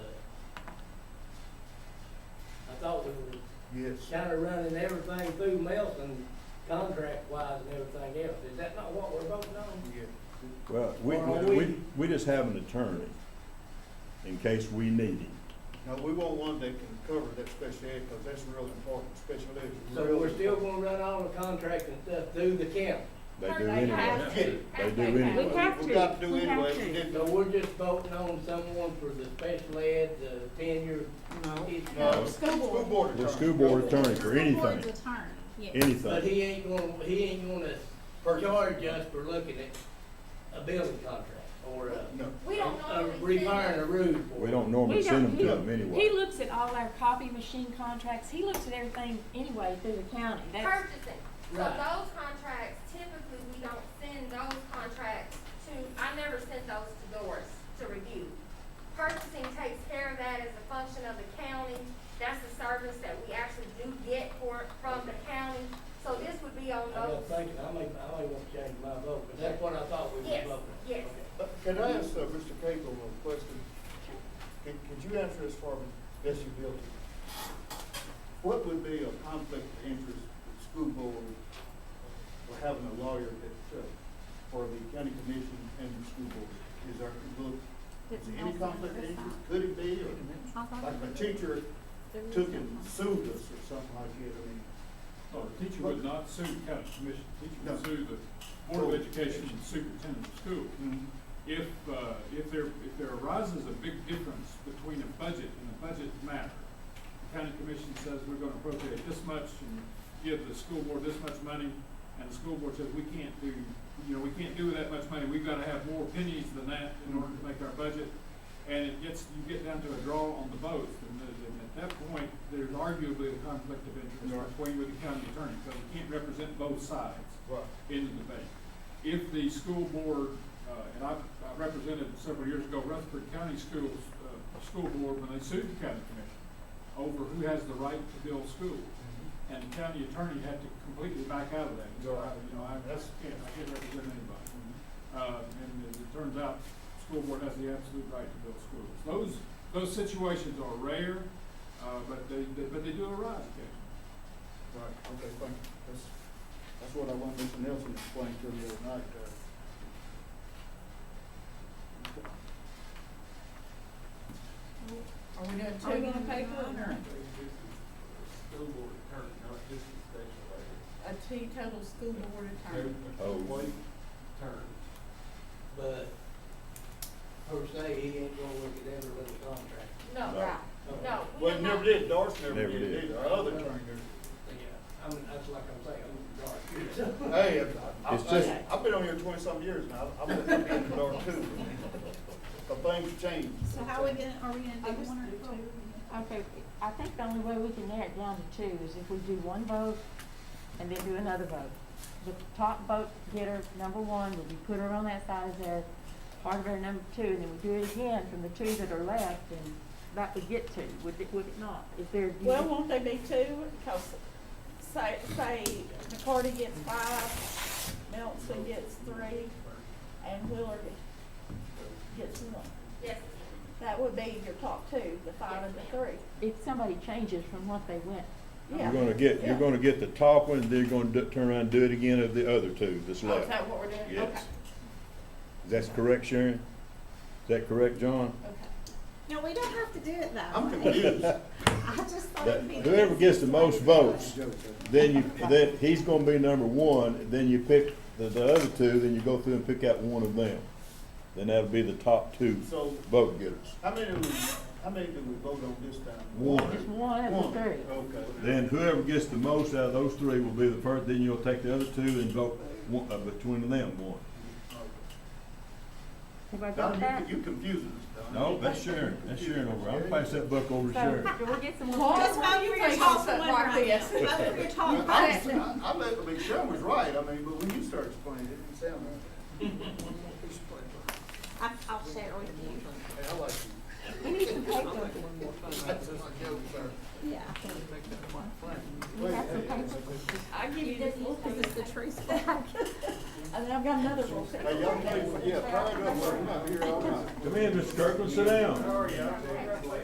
thought we were Yes. kinda running everything through Melton, contract wise and everything else. Is that not what we're voting on? Yeah. Well, we, Or are we, we- we- we just have an attorney in case we need him. Now, we want one that can cover that special ed, because that's real important, special ed. is So real we're still important. gonna run all the contracts and stuff through the county. They Aren't do they anyway. have to? They Aren't do anyway. have We have We've got to. to do We have anyway, to. we did So we're just voting on someone for the special ed, the tenure. No. School uh, School board. board attorney. The school board attorney for School board's anything, attorney, But yes. anything. he ain't gonna, he ain't gonna charge us for looking at a building contract or a, No. We don't a normally send rewiring a them. roof. We don't normally We send them don't- to them He anyway. looks at all our copy machine contracts. He looks at everything anyway through the county. That's, Purchasing. So Right. those contracts, typically, we don't send those contracts to, I never send those to Doris to review. Purchasing takes care of that as a function of the county. That's the service that we actually do get for, from the county. So this would be on I was those. thinking, I may, I may want to change my vote, but that's what I thought we were voting Yes, on. yes. Uh, Can I ask uh, Mr. Cagle a question? Could, could you answer this for me, best you will? What would be a conflict of interest with school board for having a lawyer that, uh, for the county commission and the school board? Is there, will, is there any conflict of interest? Could it be, or, like if a teacher took and sued us or something like that, I mean? No, Oh, the teacher would not sue the county commission, the teacher No. would sue the Board of Education and superintendent of school. Mm-hmm. If, uh, if there, if there arises a big difference between a budget and a budget matter, the county commission says we're gonna appropriate this much and give the school board this much money, and the school board says we can't do, you know, we can't do that much money, we've gotta have more pennies than that in order to make our budget. And it gets, you get down to a draw on the both, and then- and at that point, there's arguably a conflict of Right. interest between with the county attorney, because you can't represent both sides Right. in the debate. If the school board, uh, and I I represented several years ago Rutherford County Schools, uh, School Board, when they sued the county commission over who has the right to build schools. Mm-hmm. And the county attorney had to completely back out of that. So, I- you know, I I That's- can't, I can't represent anybody. Mm-hmm. Uh, And as it turns out, the school board has the absolute right to build schools. Those, those situations are rare, uh, but they, they- but they do arise occasionally. Right, okay, thank you. That's, that's what I want Mr. Nelson to explain to me the other night. uh, Are we gonna Are we take gonna pay for it? one or School board attorney, not just the special ed. a teetotal school board attorney? Oh. Employee attorney. But per se, he ain't gonna look at every little contract. No, Right. no. we Well, are he never not- did, Doris never Never did did. either, our other attorney did. Yeah, I mean, that's like I'm saying, I'm dark. Hey, I, It's just- I, I've been on here twenty-some years now, I've I've been in the dark too. But things change. So how we gonna, are we gonna do one or two? okay, I think the only way we can narrow it down to two is if we do one vote and then do another vote. The top vote getter, number one, will be put her on that side as our part of our number two, and then we do it again from the two that are left, and that would get two, would it, would it not? Is there? Well, won't they be two? Cause say, say McCarty gets five, Melton gets three, and Willard gets one. Yes, That would be your top two, the five and the three. If somebody changes from what they went, You're Yeah. gonna get, Yeah. you're gonna get the top one, then you're gonna do- turn around and do it again of the other two that's Oh, is left. that what we're doing? Okay, Yes. That's correct, Sharon? Is that correct, John? Okay. No, we don't have to do it that I'm way. confused. I just thought That- it'd be. the Whoever gets the easiest most way to do it. votes, then you, then he's gonna be number one, then you pick the, the other two, then you go through and pick out one of them. Then that'll be the top two So, vote getters. how many, do we- how many did we vote on this time? One. Just one of One, Oh. the three. okay. Then whoever gets the most out of those three will be the first, then you'll take the other two and vote one, uh, between them one. Everybody got Don, that? you, you confusing us, Don. No, that's Sharon, that's Sharon over, I'll pass that buck over to Sharon. So, do we get some more? Laura, votes? why are you Just taking toss something one like right this? now. That's what we're I, talking was- about. I, I, let- I mean, Sharon was right, I mean, but when you started explaining, it didn't sound right. I- I'll share it with you. Hey, I like you. We need some paper. Yeah. We have some paper. I'll give you this one, cause it's the tree And then I've got another one. Hey, y'all, yeah, prior to, I'm out here all night. Come in, Mr. Kirkland, sit down. Sorry, I-